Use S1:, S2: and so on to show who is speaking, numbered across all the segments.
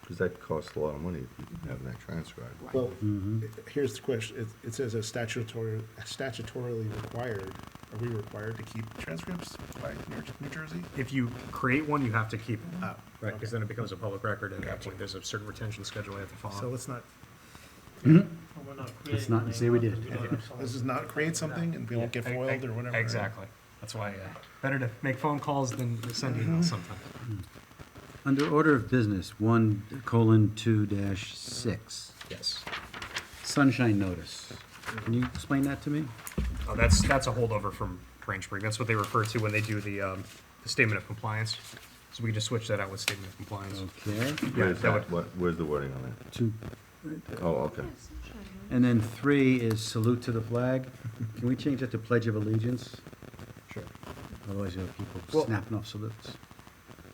S1: because that costs a lot of money if you have that transcribed.
S2: Well, here's the question, it, it says as statutory, statutorily required, are we required to keep transcripts by New New Jersey?
S3: If you create one, you have to keep it.
S2: Oh,
S3: Right, because
S2: okay.
S3: then it becomes a public record, and at that point, there's a certain retention schedule you have to
S2: So
S3: follow.
S2: let's not,
S4: Well, we're not
S5: Let's
S4: creating
S5: not
S4: any
S5: say we
S4: law,
S5: did.
S4: 'cause we don't have someone-
S2: this is uh, not create something and people get
S3: E- e-
S2: foiled or whatever.
S3: Exactly. That's why, uh, better to make phone calls than send
S6: Mm-hmm.
S3: emails sometimes.
S5: Under order of business, one colon two dash six,
S3: Yes.
S5: sunshine notice. Can you explain that to me?
S3: Oh, that's, that's a holdover from Grangebury. That's what they refer to when they do the, um, the statement of compliance. So we can just switch that out with statement of
S5: Oh.
S3: compliance.
S5: Okay,
S3: Yeah,
S1: Where's
S3: that would,
S1: that, what, where's the wording on that?
S5: two,
S1: Oh, okay.
S5: and then three is salute to the flag. Can we change that to pledge of allegiance?
S1: Sure.
S5: Otherwise, you have people
S3: Well-
S5: snapping off salutes.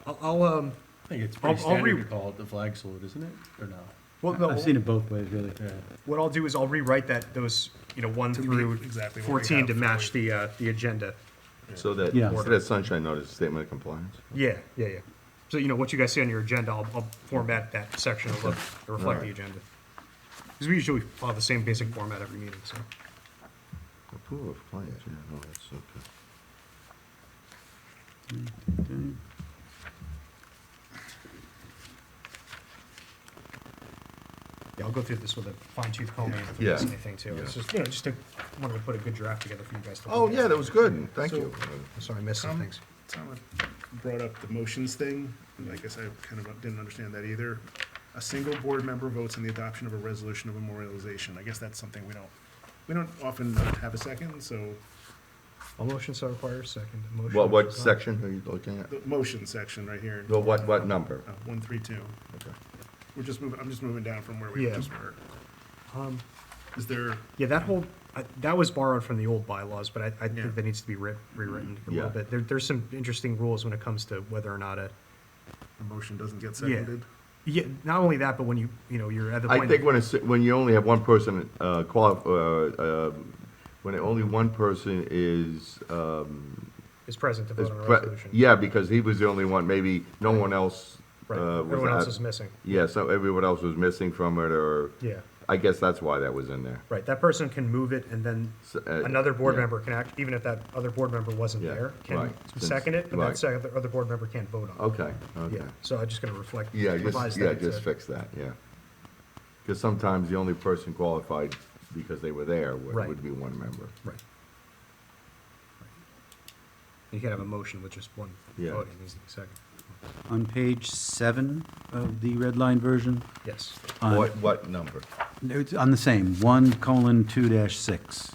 S3: I'll, I'll, um,
S6: I think it's
S3: I'll-
S6: pretty
S3: I'll re-
S6: standard to call it the flag salute, isn't it? Or no?
S3: well, no,
S5: I've seen it both ways, really.
S6: Yeah.
S3: what I'll do is I'll rewrite that, those, you know, one
S2: To meet
S3: through
S2: exactly what we
S3: fourteen
S2: have
S3: to
S2: for
S3: match the, uh, the agenda.
S1: So that,
S5: Yeah.
S1: so that sunshine notice, statement of compliance?
S3: Yeah, yeah, yeah. So, you know, what you guys see on your agenda, I'll, I'll format that section to look- to reflect the
S1: Alright.
S3: agenda. Because we usually follow the same basic format every meeting, so.
S1: Approval of claims, yeah, no, that's okay.
S5: Okay.
S3: Yeah, I'll go through this with a fine tooth comb and if
S1: Yeah.
S3: there's anything too. It's
S1: Yeah.
S3: just, you know, just to, wanted to put a good draft together for you guys to.
S1: Oh,
S3: look
S1: yeah,
S3: at.
S1: that was good, Um, thank
S2: So-
S1: you.
S3: Sorry, I missed some
S2: Come-
S3: things.
S2: Someone brought up the motions thing, and I guess I kind of didn't understand that either. A single board member votes on the adoption of a resolution of memorialization, I guess that's something we don't, we don't often have a second, so,
S3: A motion so requires second. A motion
S1: What, what
S3: requires-
S1: section are you looking at?
S2: the motion section right here,
S1: No, what, what number?
S2: uh, one, three, two.
S1: Okay.
S2: We're just moving, I'm just moving down from where we
S3: Yeah.
S2: just were.
S3: Um,
S2: Is there,
S3: Yeah, that whole, I- that was borrowed from the old bylaws, but I, I
S2: Yeah.
S3: think that needs to be writ- rewritten a little
S1: Yeah.
S3: bit. There, there's some interesting rules when it comes to whether or not a,
S2: the motion doesn't get
S3: Yeah.
S2: seconded?
S3: yeah, not only that, but when you, you know, you're at the point.
S1: I think when it's, when you only have one person, uh, qual, uh, uh, when only one person is, um,
S3: Is present to
S1: is
S3: vote on a
S1: pre-
S3: resolution.
S1: yeah, because he was the only one, maybe no one else, uh,
S3: Right,
S1: was
S3: everyone else
S1: at-
S3: is missing.
S1: Yeah, so everyone else was missing from it, or,
S3: Yeah,
S1: I guess that's why that was in there.
S3: right, that person can move it and then
S1: So, uh,
S3: another board
S1: yeah.
S3: member can act, even if that other board member wasn't
S1: Yeah,
S3: there, can
S1: right.
S3: second it, but
S1: Right.
S3: that second, the other board member can't vote on it.
S1: Okay, okay.
S3: Yeah, so I'm just gonna reflect.
S1: Yeah,
S3: revise
S1: just,
S3: that
S1: yeah,
S3: to-
S1: just fix that, yeah. Because sometimes the only person qualified because they were there would,
S3: Right.
S1: would be one member.
S3: Right. You can have a motion with just one
S1: Yeah.
S3: voting, is the second.
S5: On page seven of the red line version,
S3: Yes.
S1: Uh,
S5: on-
S1: what number?
S5: it's on the same, one colon two dash six.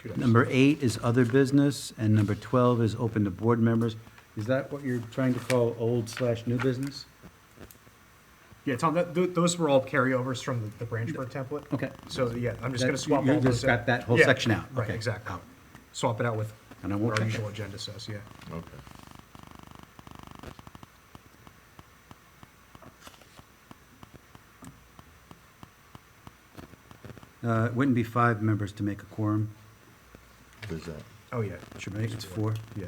S3: Two dice.
S5: Number eight is other business, and number 12 is open to board members. Is that what you're trying to call old slash new business?
S3: Yeah, Tom, that, th- those were all carryovers from the, the Branchburg template.
S5: Okay.
S3: So, yeah, I'm just
S5: That-
S3: gonna swap
S5: you- you
S3: all those.
S5: just
S3: out.
S5: got that whole
S3: Yeah,
S5: section out.
S3: Right,
S5: Okay.
S3: exactly. Swap it out with
S5: And I won't
S3: what our
S5: check
S3: usual
S5: it.
S3: agenda says, yeah.
S1: Okay.
S5: Uh, It wouldn't be five members to make a quorum,
S1: Who's that?
S3: Oh, yeah.
S5: should be, it's four.
S3: Yeah.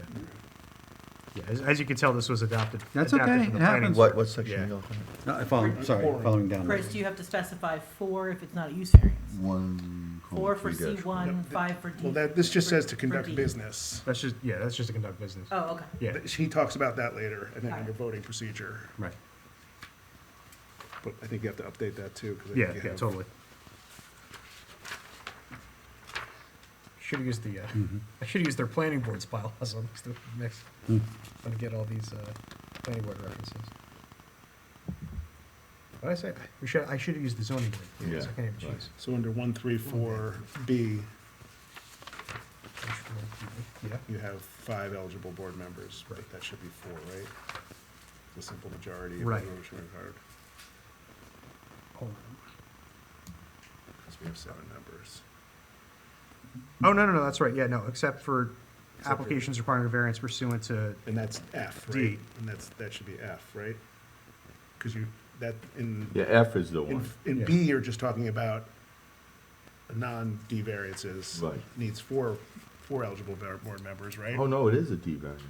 S3: Yeah, as, as you can tell, this was adopted.
S5: That's
S3: adapted
S5: okay,
S3: from the
S5: it
S3: planning
S5: happens.
S3: board.
S1: What, what section
S3: Yeah.
S1: are you looking
S5: No, I follow, sorry,
S2: Quorum.
S5: following down.
S7: First, you have to specify four if it's not a use variance.
S1: at? One.
S7: Four for C one,
S2: Yep.
S7: five for D.
S2: Well, that, this just says to
S7: for
S2: conduct
S7: D.
S2: business.
S3: That's just, yeah, that's just to conduct business.
S7: Oh, okay.
S3: Yeah,
S2: He talks about that later, and then under voting procedure,
S5: Right.
S2: but I think you have to update that too. 'cause I think
S3: yeah,
S2: you
S3: yeah,
S2: have-
S3: totally. Should've used the, uh,
S5: Mm-hmm.
S3: I should've used their planning board's bylaws on this mix. I'm gonna get all these, uh, planning board references. What did I say? We should, I should've used the zoning board. because I
S1: Yeah,
S3: can't even
S1: right.
S3: choose.
S2: So under one, three, four, B,
S3: Which one? Yeah,
S2: you have five eligible board members, but that should be four, right? The simple majority of the
S3: Right.
S2: motion required,
S3: hold on.
S2: because we have seven members.
S3: Oh, no, no, no, that's right, yeah, no, except for applications requiring a variance pursuant to,
S2: And that's F,
S3: D.
S2: right? And that's, that should be F, right? Because you, that, in,
S1: Yeah, F is the
S2: in,
S1: one.
S2: in
S3: Yeah.
S2: B, you're just talking about non-D variances.
S1: Right.
S2: Needs four, four eligible board members, right?
S1: Oh, no, it is a D variance.